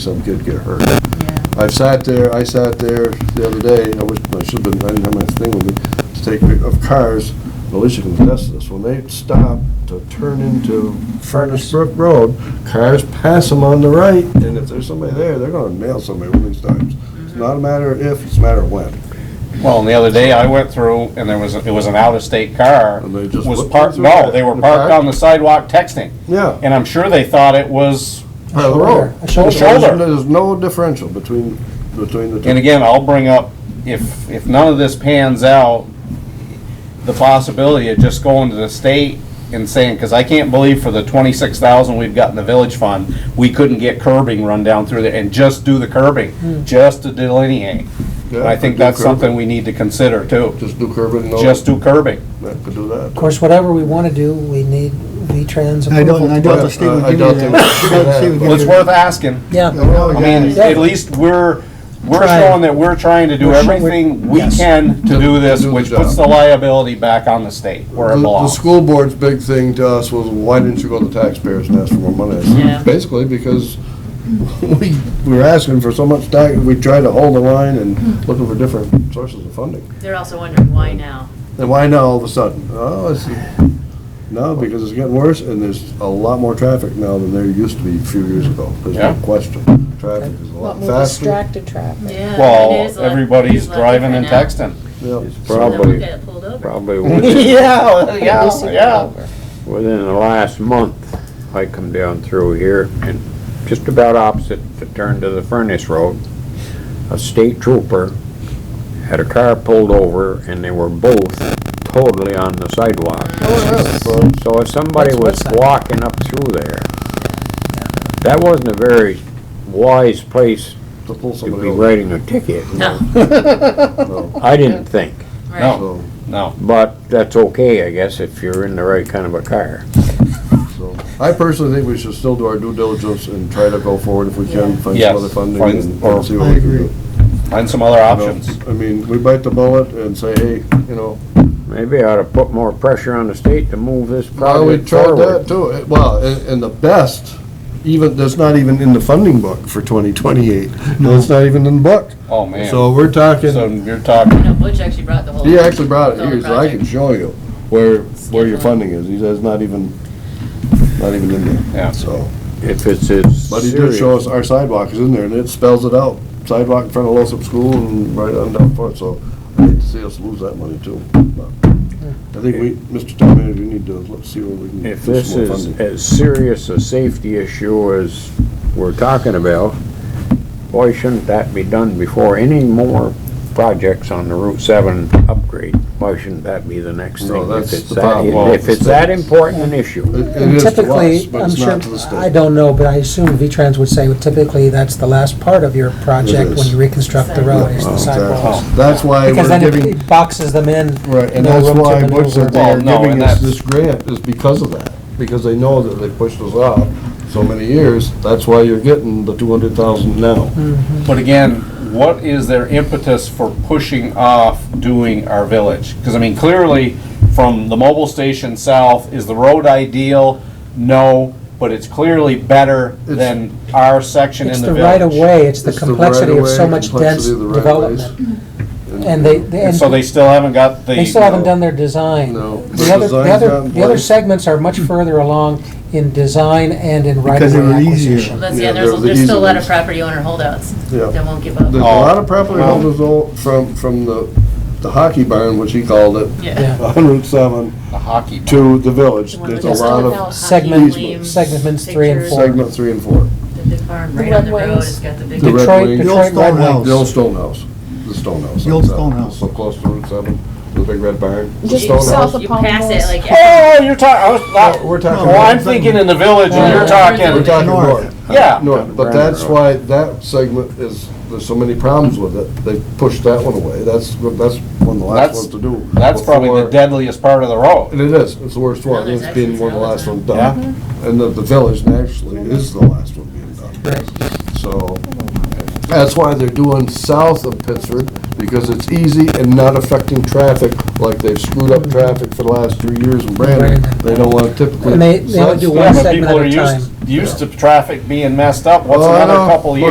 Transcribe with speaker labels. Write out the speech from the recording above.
Speaker 1: some kid get hurt.
Speaker 2: Yeah.
Speaker 1: I've sat there, I sat there the other day, I wish, I should've been, I didn't have my thing with me, to take, pic- of cars, Alicia can attest to this, when they stop to turn into Furnace Brook Road, cars pass them on the right, and if there's somebody there, they're gonna nail somebody one of these times. It's not a matter of if, it's a matter of when.
Speaker 3: Well, and the other day I went through and there was, a- it was an out-of-state car.
Speaker 1: And they just
Speaker 3: Was
Speaker 1: whipped
Speaker 3: parked,
Speaker 1: through
Speaker 3: no,
Speaker 1: it?
Speaker 3: they were
Speaker 1: The
Speaker 3: parked
Speaker 1: park?
Speaker 3: on the sidewalk texting.
Speaker 1: Yeah.
Speaker 3: And I'm sure they thought it was,
Speaker 1: Part of the road.
Speaker 4: A shoulder.
Speaker 3: Shoulder.
Speaker 1: There's no differential between, between the two.
Speaker 3: and again, I'll bring up, if, if none of this pans out, the possibility of just going to the state and saying, because I can't believe for the twenty-six thousand we've got in the village fund, we couldn't get curbing run down through there and just do the curbing, just to delineate. And I
Speaker 1: Yeah,
Speaker 3: think
Speaker 1: do
Speaker 3: that's
Speaker 1: curbing.
Speaker 3: something we need to consider too,
Speaker 1: Just do curbing, no,
Speaker 3: just
Speaker 1: that
Speaker 3: do curbing.
Speaker 1: could do that.
Speaker 4: Of course, whatever we want to do, we need V-Trans
Speaker 5: I
Speaker 4: approval.
Speaker 5: don't, I doubt
Speaker 1: Well,
Speaker 5: the state would
Speaker 1: I- I
Speaker 5: give
Speaker 1: doubt
Speaker 5: you
Speaker 1: they
Speaker 5: that.
Speaker 1: would.
Speaker 5: The state would give
Speaker 3: Well, it's
Speaker 5: you-
Speaker 3: worth asking.
Speaker 4: Yeah,
Speaker 5: Oh,
Speaker 3: I
Speaker 5: yeah.
Speaker 3: mean, at least we're, we're
Speaker 4: Trying.
Speaker 3: showing that we're trying to do
Speaker 4: We're showing-
Speaker 3: everything we
Speaker 4: yes.
Speaker 3: can to do this,
Speaker 1: To do the
Speaker 3: which
Speaker 1: job.
Speaker 3: puts the liability back on the state where it
Speaker 1: The-
Speaker 3: belongs.
Speaker 1: The school board's big thing to us was, why didn't you go to taxpayers and ask for more money? I said,
Speaker 2: Yeah.
Speaker 1: Basically, because we, we were asking for so much tax, we tried to hold the line and looking for different sources of funding.
Speaker 2: They're also wondering why now.
Speaker 1: And why now all of a sudden? Oh, it's, no, because it's getting worse and there's a lot more traffic now than there used to be a few years ago. There's
Speaker 3: Yeah.
Speaker 1: no question. Traffic is a
Speaker 6: lot
Speaker 1: lot
Speaker 6: more
Speaker 1: faster.
Speaker 6: distracted traffic.
Speaker 2: Yeah. Uh, it is
Speaker 3: Well,
Speaker 2: a lot-
Speaker 3: everybody's
Speaker 2: it's a lot
Speaker 3: driving and
Speaker 2: different now.
Speaker 3: texting.
Speaker 1: Yeah.
Speaker 7: It's
Speaker 2: Some of them
Speaker 7: probably,
Speaker 2: get pulled over.
Speaker 7: probably
Speaker 3: Yeah,
Speaker 6: At least it got over.
Speaker 7: within the last month, I come down through here and just about opposite the turn to the furnace road, a state trooper had a car pulled over and they were both totally on the sidewalk.
Speaker 1: Oh,
Speaker 7: So if somebody
Speaker 4: That's
Speaker 7: was
Speaker 4: what's that?
Speaker 7: walking up through there, that wasn't a very wise place
Speaker 1: yeah, To pull
Speaker 7: to
Speaker 1: somebody
Speaker 7: be
Speaker 1: over.
Speaker 7: writing a ticket,
Speaker 2: No,
Speaker 1: No,
Speaker 7: I didn't think.
Speaker 2: right.
Speaker 3: No,
Speaker 1: So,
Speaker 3: no.
Speaker 7: But that's okay, I guess, if you're in the right kind of a car.
Speaker 1: so, I personally think we should still do our due diligence and try to go forward if we can, find
Speaker 3: Yes,
Speaker 1: some other funding
Speaker 3: find-
Speaker 1: and
Speaker 3: or-
Speaker 1: and see what we can do.
Speaker 3: Find some other
Speaker 1: You know,
Speaker 3: options.
Speaker 1: I mean, we bite the bullet and say, hey, you know,
Speaker 7: Maybe I ought to put more pressure on the state to move this
Speaker 1: well, we
Speaker 7: project
Speaker 1: tried
Speaker 7: forward.
Speaker 1: that too. It- Well, and, and the best, even, that's not even in the funding book for twenty twenty-eight. No, it's not even in the book.
Speaker 3: Oh, man. So
Speaker 1: So we're talking,
Speaker 3: you're talking,
Speaker 2: You know, Butch actually brought the whole.
Speaker 1: he actually brought it
Speaker 2: the whole
Speaker 1: here, so I can
Speaker 2: project.
Speaker 1: show you where, where your
Speaker 2: Schedule.
Speaker 1: funding is. He says not even, not even in there,
Speaker 3: yeah.
Speaker 1: so.
Speaker 7: If it's as
Speaker 1: But he did show us
Speaker 7: serious,
Speaker 1: our sidewalk is in there, and it spells it out, sidewalk in front of Lossup School and right on down front, so I hate to see us lose that money too. But I think we, Mr. Town Manager, we need to look, see where we can.
Speaker 7: if
Speaker 1: do
Speaker 7: this
Speaker 1: some more
Speaker 7: is
Speaker 1: funding.
Speaker 7: as serious a safety issue as we're talking about, why shouldn't that be done before any more projects on the Route 7 upgrade? Why shouldn't that be the next
Speaker 1: No,
Speaker 7: thing?
Speaker 1: that's
Speaker 7: If it's
Speaker 1: the
Speaker 7: that,
Speaker 1: problem. Well,
Speaker 7: if it's that important an issue,
Speaker 1: It- It is to us,
Speaker 4: typically,
Speaker 1: but
Speaker 4: I'm
Speaker 1: it's
Speaker 4: sure,
Speaker 1: not to the state.
Speaker 4: I don't know, but I assume V-Trans would say typically that's the last part of your project when
Speaker 1: is. Oh,
Speaker 4: you reconstruct the road, is the
Speaker 3: Oh.
Speaker 4: sidewalks.
Speaker 1: Exactly. That's why
Speaker 4: Because
Speaker 1: we're
Speaker 4: then
Speaker 1: giving,
Speaker 4: it boxes them in.
Speaker 1: right, and
Speaker 4: no
Speaker 1: that's
Speaker 4: room to
Speaker 1: why Butch
Speaker 4: maneuver.
Speaker 1: said they're
Speaker 3: Well, no,
Speaker 1: giving
Speaker 3: and
Speaker 1: us
Speaker 3: that's-
Speaker 1: this grant is because of that, because they know that they pushed us out so many years, that's why you're getting the two hundred thousand now.
Speaker 3: But again, what is their impetus for pushing off doing our village? Because I mean, clearly, from the mobile station south, is the road ideal? No, but it's clearly better than our section
Speaker 4: It's
Speaker 3: in
Speaker 4: the
Speaker 3: the
Speaker 4: right of
Speaker 3: village.
Speaker 4: way, it's the
Speaker 1: It's the
Speaker 4: complexity of so
Speaker 1: right-of-way,
Speaker 4: much dense
Speaker 1: complexity of the right-of-ways.
Speaker 4: development. And they, they-
Speaker 3: And so they still haven't got the.
Speaker 4: They still haven't done their design.
Speaker 1: No.
Speaker 4: The other, the
Speaker 1: Design's not
Speaker 4: other,
Speaker 1: in
Speaker 4: the other
Speaker 1: place.
Speaker 4: segments are much further along in design and in
Speaker 5: Because they
Speaker 4: right-of-way
Speaker 5: were easier.
Speaker 4: acquisition.
Speaker 2: That's,
Speaker 1: Yeah,
Speaker 2: yeah, there's,
Speaker 1: they're the
Speaker 2: there's still a
Speaker 1: easy
Speaker 2: lot of
Speaker 1: ones.
Speaker 2: property owner holdouts
Speaker 1: Yeah.
Speaker 2: that won't give up.
Speaker 1: There's a
Speaker 3: Oh.
Speaker 1: lot of property owners all from, from the, the hockey barn, which he called it,
Speaker 2: Yeah.
Speaker 1: on Route seven
Speaker 3: The hockey.
Speaker 1: to the village.
Speaker 2: The one
Speaker 1: There's
Speaker 2: with
Speaker 1: a
Speaker 2: the
Speaker 1: lot
Speaker 2: sunken
Speaker 1: of
Speaker 2: out hockey
Speaker 4: segment-
Speaker 2: flames,
Speaker 4: segments three and
Speaker 2: pictures,
Speaker 4: four.
Speaker 1: segment three and four.
Speaker 2: The big barn right
Speaker 6: The
Speaker 2: on the
Speaker 6: red
Speaker 2: road,
Speaker 6: wings.
Speaker 2: it's got the big.
Speaker 1: The Red
Speaker 4: Detroit-
Speaker 1: Wing.
Speaker 4: Detroit Red
Speaker 5: Stone
Speaker 4: Wings.
Speaker 5: House.
Speaker 1: The old stone house, the stone house.
Speaker 5: The old
Speaker 1: that's out.
Speaker 5: stone house.
Speaker 1: So close to Route seven, the big red barn. The
Speaker 6: Just
Speaker 1: stone
Speaker 6: south
Speaker 1: house.
Speaker 6: of
Speaker 2: You pass it like.
Speaker 3: Oh, you're talking, I was,
Speaker 1: No,
Speaker 3: not-
Speaker 1: Uh, We're talking.
Speaker 3: well, I'm thinking in the village and you're
Speaker 1: We're
Speaker 3: talking,
Speaker 1: talking
Speaker 5: North.
Speaker 1: north.
Speaker 3: yeah.
Speaker 1: North, but that's why that segment is, there's so many problems with it. They pushed that one away. That's, that's one of the last
Speaker 3: That's-
Speaker 1: ones to do.
Speaker 3: That's probably the
Speaker 1: before-
Speaker 3: deadliest part of the road.
Speaker 1: And it is, it's the worst one,
Speaker 2: No, there's
Speaker 1: it's being one of the last
Speaker 2: actually
Speaker 1: ones done. And the, the village naturally is the last one being done. So, that's why they're doing south of Pittsford, because it's easy and not affecting traffic, like they've screwed up traffic for the last three years in Brandon.
Speaker 4: Brandon.
Speaker 1: They don't wanna typically.
Speaker 4: And they- they only
Speaker 1: So that's-
Speaker 4: do
Speaker 3: Yeah,
Speaker 4: one
Speaker 3: but
Speaker 4: segment
Speaker 3: people
Speaker 4: at
Speaker 3: are
Speaker 4: a
Speaker 3: used-
Speaker 4: time.
Speaker 3: Used to traffic being messed up, what's
Speaker 1: Well, I
Speaker 3: another
Speaker 1: know.
Speaker 3: couple
Speaker 1: Look,
Speaker 3: of years?